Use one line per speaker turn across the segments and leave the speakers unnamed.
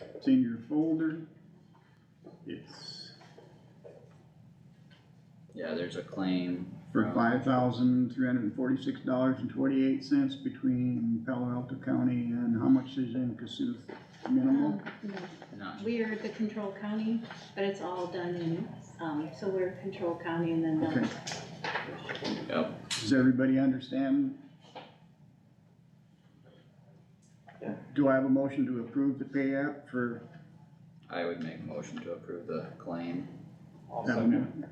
It's in your folder. It's
Yeah, there's a claim
for
from,
five thousand three hundred and forty-six dollars and twenty-eight cents between Palo Alto County and how much is in Cassuth minimal?
Um, no,
not,
We are the control county, but it's all done in, um, so we're control county and then
Okay,
the
yep,
does everybody understand?
Yeah.
Do I have a motion to approve the pay app for
I would make a motion to approve the claim,
I'll
that
second.
one?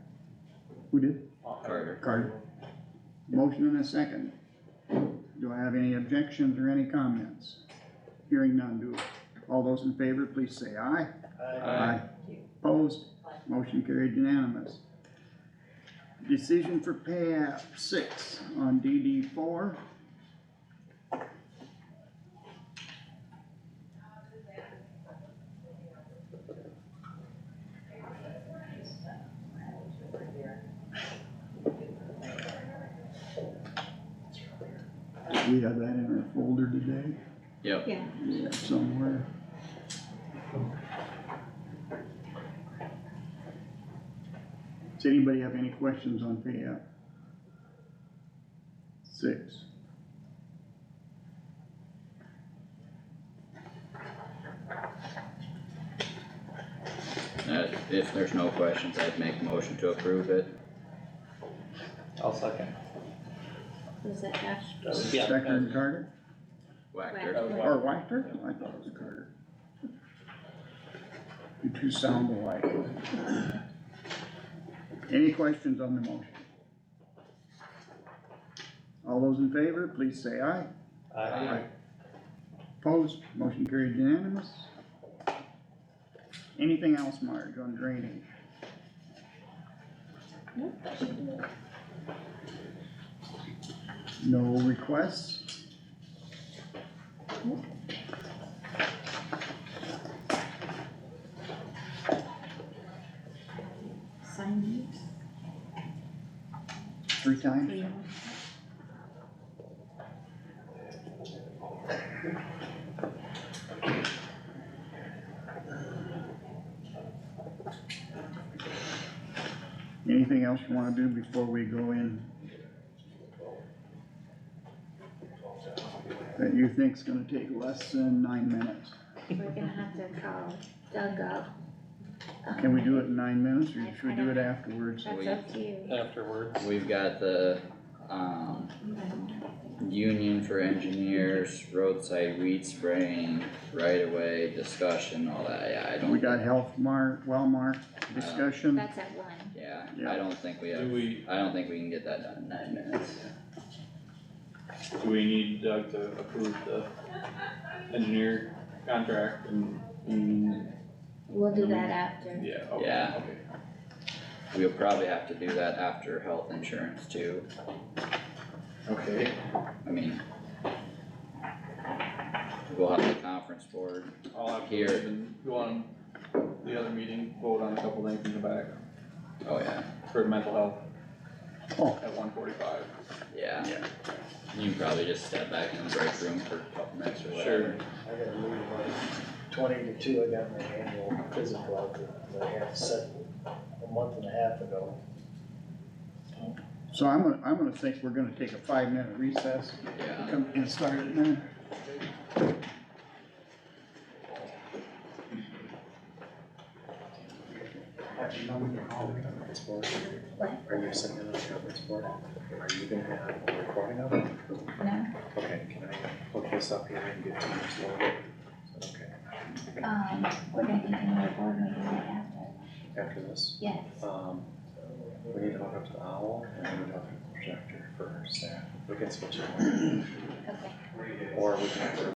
Who did?
Carter.
Carter. Motion and a second. Do I have any objections or any comments? Hearing none, do, all those in favor, please say aye.
Aye.
Aye.
Opposed, motion carried unanimous. Decision for pay app six on DD four. We have that in our folder today,
Yep,
yeah,
yeah, somewhere. Does anybody have any questions on pay app? Six.
Uh, if there's no questions, I'd make a motion to approve it,
I'll second.
was that Ash?
That was- Yeah.
Stecker and Carter,
Whacker.
Whacker.
or Wactor? I thought it was Carter. You two sound alike. Any questions on the motion? All those in favor, please say aye.
Aye.
Opposed, motion carried unanimous. Anything else, Marge, on drainage?
Nope, that should do it.
No requests?
Sign
Three
it,
times?
yeah.
Anything else you wanna do before we go in? That you think's gonna take less than nine minutes?
We're gonna have to call Doug up. Um,
Can we do it in nine minutes, or should we do it afterwards?
That's up to you.
Afterwards.
We've got the, um, union for engineers, roadside weed spraying, right away discussion, all that, yeah, I
We
don't,
got health mark, well mark, discussion,
That's at one.
yeah,
Yeah.
I don't think we have,
Do we,
I don't think we can get that done in nine minutes.
do we need Doug to approve the engineer contract and, and,
We'll do that after.
yeah, okay,
Yeah.
okay.
We'll probably have to do that after health insurance too,
Okay,
I mean. We'll have the conference board,
I'll have to
Here.
leave and go on the other meeting, vote on a couple things in the back
oh yeah,
for mental health.
Oh.
At one forty-five.
yeah.
Yeah.
You can probably just step back in the break room for a couple minutes or whatever.
I gotta leave about twenty to two, I got my annual physical out that I have set a month and a half ago.
so I'm gonna, I'm gonna think we're gonna take a five-minute recess,
Yeah,
come and start it then.
Have you done your conference board?
What?
Are you sitting in the conference board? Are you gonna have a recording of it?
No,
Okay, can I hook this up here and get to you slowly? Is that okay?
um, we're gonna be doing our board meeting right after.
After this,
Yes,
um, we need to hook up to the owl and we need to hook up to the projector for staff. We can switch it,
okay.
or we can.